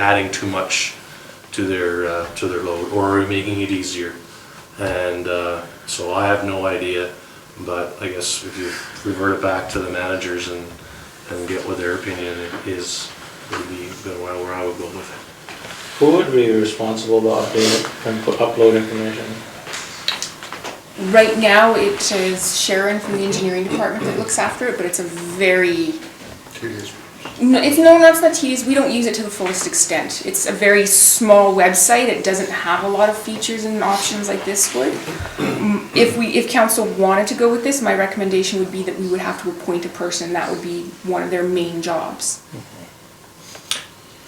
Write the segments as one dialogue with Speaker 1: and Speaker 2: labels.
Speaker 1: adding too much to their, uh, to their load, or are we making it easier? And uh, so I have no idea, but I guess if you revert it back to the managers and, and get what their opinion is, would be the way where I would go with it.
Speaker 2: Who would be responsible to update and put, upload information?
Speaker 3: Right now, it is Sharon from the engineering department that looks after it, but it's a very, no, it's, no, not that tedious, we don't use it to the fullest extent. It's a very small website, it doesn't have a lot of features and options like this would. Mm, If we, if council wanted to go with this, my recommendation would be that we would have to appoint a person, that would be one of their main jobs.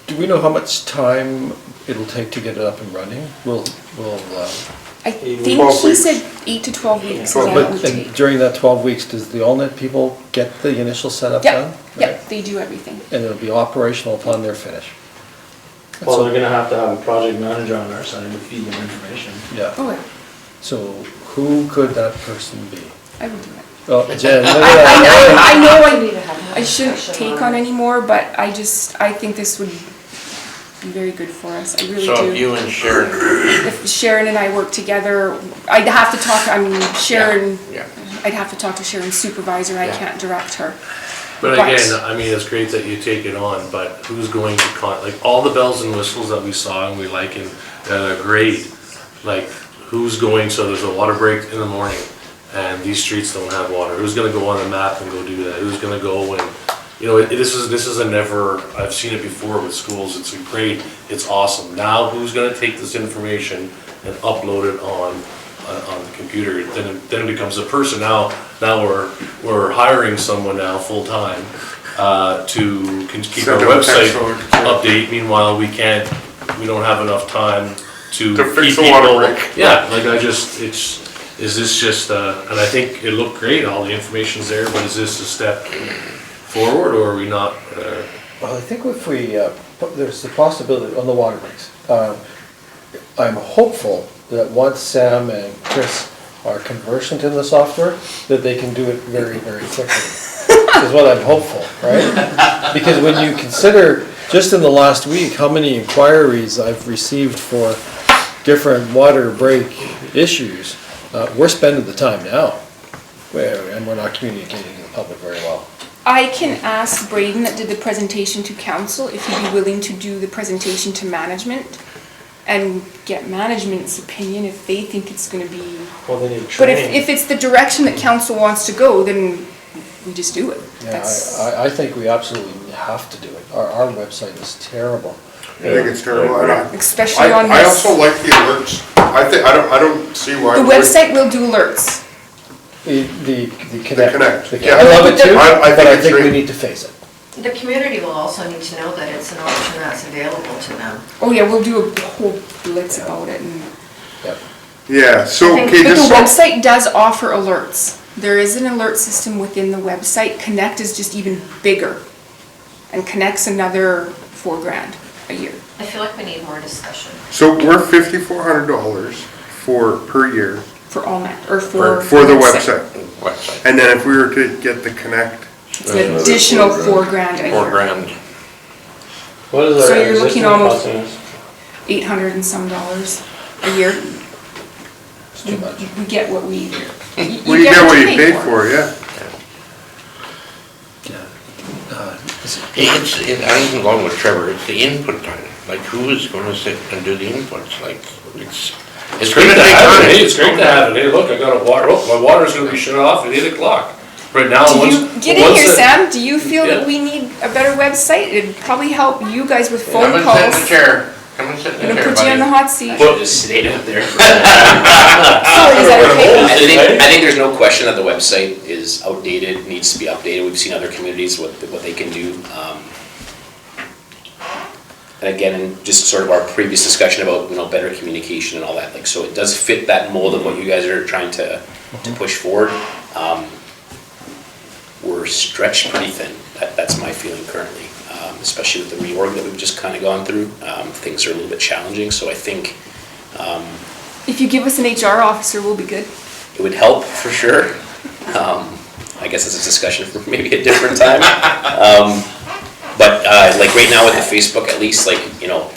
Speaker 4: Do we know how much time it'll take to get it up and running? We'll, we'll, uh,
Speaker 3: I
Speaker 2: Eight-
Speaker 3: think
Speaker 5: Twelve
Speaker 3: she
Speaker 5: weeks.
Speaker 3: said eight to twelve weeks is all it would
Speaker 4: but and
Speaker 3: take.
Speaker 4: during that twelve weeks, does the AllNet people get the initial setup done?
Speaker 3: Yep,
Speaker 4: Right.
Speaker 3: yep, they do everything.
Speaker 4: And it'll be operational upon their finish?
Speaker 2: Well, they're gonna have to have a project manager on our side to feed them information.
Speaker 4: Yeah,
Speaker 3: Oh, yeah,
Speaker 4: so who could that person be?
Speaker 3: I would do it.
Speaker 4: Oh, Jen, no, no,
Speaker 3: I,
Speaker 4: no.
Speaker 3: I, I know I
Speaker 6: We need to have another
Speaker 3: I shouldn't
Speaker 6: discussion
Speaker 3: take on
Speaker 6: it.
Speaker 3: anymore, but I just, I think this would be very good for us, I really
Speaker 5: So if
Speaker 3: do.
Speaker 5: you and Sharon,
Speaker 3: If Sharon and I work together, I'd have to talk, I mean, Sharon,
Speaker 5: yeah.
Speaker 3: I'd have to talk to Sharon's supervisor, I
Speaker 5: Yeah.
Speaker 3: can't direct her.
Speaker 1: But
Speaker 3: Right.
Speaker 1: again, I mean, it's great that you take it on, but who's going to con, like, all the bells and whistles that we saw and we like and that are great, like, who's going, so there's a water break in the morning and these streets don't have water, who's gonna go on the map and go do that, who's gonna go and, you know, it- this is, this is a never, I've seen it before with schools, it's great, it's awesome. Now who's gonna take this information and upload it on on, on the computer, then it, then it becomes a person. Now, now we're, we're hiring someone now full-time, uh, to can keep our
Speaker 5: Send them a
Speaker 1: website
Speaker 5: text over.
Speaker 1: update. Meanwhile, we can't, we don't have enough time to.
Speaker 5: To
Speaker 1: keep
Speaker 5: fix the water
Speaker 1: people-
Speaker 5: break.
Speaker 1: Yeah, like I just, it's, is this just, uh, and I think it looked great, all the information's there, but is this a step forward or are we not, uh,
Speaker 4: Well, I think if we, uh, put- there's the possibility on the water breaks. Um, I'm hopeful that once Sam and Chris are conversant in the software, that they can do it very, very quickly. Is what I'm hopeful, right? Because when you consider, just in the last week, how many inquiries I've received for different water break issues, uh, we're spending the time now. Where- And we're not communicating to the public very well.
Speaker 3: I can ask Braden that did the presentation to council if he'd be willing to do the presentation to management and get management's opinion if they think it's gonna be.
Speaker 2: Well, they need
Speaker 3: But if,
Speaker 2: training.
Speaker 3: if it's the direction that council wants to go, then we just do it.
Speaker 4: Yeah,
Speaker 3: That's-
Speaker 4: I- I, I think we absolutely have to do it. Our, our website is terrible.
Speaker 5: I think it's terrible. and I-
Speaker 3: Especially
Speaker 5: I-
Speaker 3: on
Speaker 5: I
Speaker 3: this-
Speaker 5: also like the alerts. I think, I don't, I don't see why.
Speaker 3: The
Speaker 5: we wouldn't-
Speaker 3: website will do alerts.
Speaker 4: The, the the Connect.
Speaker 5: Connect,
Speaker 4: the-
Speaker 5: yeah.
Speaker 4: I love it too,
Speaker 5: I- I think
Speaker 4: but I
Speaker 5: it's
Speaker 4: think we
Speaker 5: great.
Speaker 4: need to face it.
Speaker 6: The community will also need to know that it's an option that's available to them.
Speaker 3: Oh yeah, we'll do a whole blitz about it and.
Speaker 4: Yep.
Speaker 5: Yeah, so,
Speaker 3: But
Speaker 5: okay, just
Speaker 3: the
Speaker 5: so,
Speaker 3: website does offer alerts. There is an alert system within the website. Connect is just even bigger. And Connect's another four grand a year.
Speaker 6: I feel like we need more discussion.
Speaker 5: so we're fifty-four hundred dollars for, per year
Speaker 3: For all that, or for.
Speaker 5: for for the website. And then if we were to get the Connect,
Speaker 3: It's an additional four grand a year.
Speaker 7: grand.
Speaker 2: What is
Speaker 3: So
Speaker 2: our
Speaker 3: you're looking
Speaker 2: existing
Speaker 3: almost-
Speaker 2: costing us?
Speaker 3: Eight hundred and some dollars a year.
Speaker 4: It's
Speaker 3: We
Speaker 4: too much.
Speaker 3: we get what we.
Speaker 5: well, you get what you paid for, yeah.
Speaker 4: Yeah. Uh, is it-
Speaker 7: It's, it- I'm along with Trevor, it's the input time, like who is gonna sit and do the inputs, like, it's, it's great to have
Speaker 1: Hey,
Speaker 7: it.
Speaker 1: it's great to have it, hey, look, I got a water, oh, my water's gonna be shut off at eight o'clock. Right now,
Speaker 3: Do
Speaker 1: Oh, once.
Speaker 3: you, get in
Speaker 1: once
Speaker 3: here,
Speaker 1: the-
Speaker 3: Sam, do you feel
Speaker 1: Yeah.
Speaker 3: that we need a better website? It'd probably help you guys with
Speaker 7: Come
Speaker 3: phone
Speaker 7: and sit in the
Speaker 3: calls.
Speaker 7: chair, come and sit in
Speaker 3: I'm
Speaker 7: the
Speaker 3: gonna
Speaker 7: chair,
Speaker 3: put you in the
Speaker 7: buddy.
Speaker 3: hot seat.
Speaker 8: Well, just stayed up there.
Speaker 3: Sorry, is that okay?
Speaker 8: I think, I think there's no question that the website is outdated, needs to be updated. We've seen other communities what, what they can do. Um, And again, and just sort of our previous discussion about, you know, better communication and all that, like, so it does fit that mold of what you guys are trying to, to push forward. Um, We're stretched pretty thin. That, that's my feeling currently, um, especially with the reorg that we've just kind of gone through. Um, Things are a little bit challenging, so I think
Speaker 3: If you give us an HR officer, we'll be good.
Speaker 8: It would help for sure. Um, I guess it's a discussion for maybe a different time. Um, But uh, like right now with the Facebook, at least, like, you know,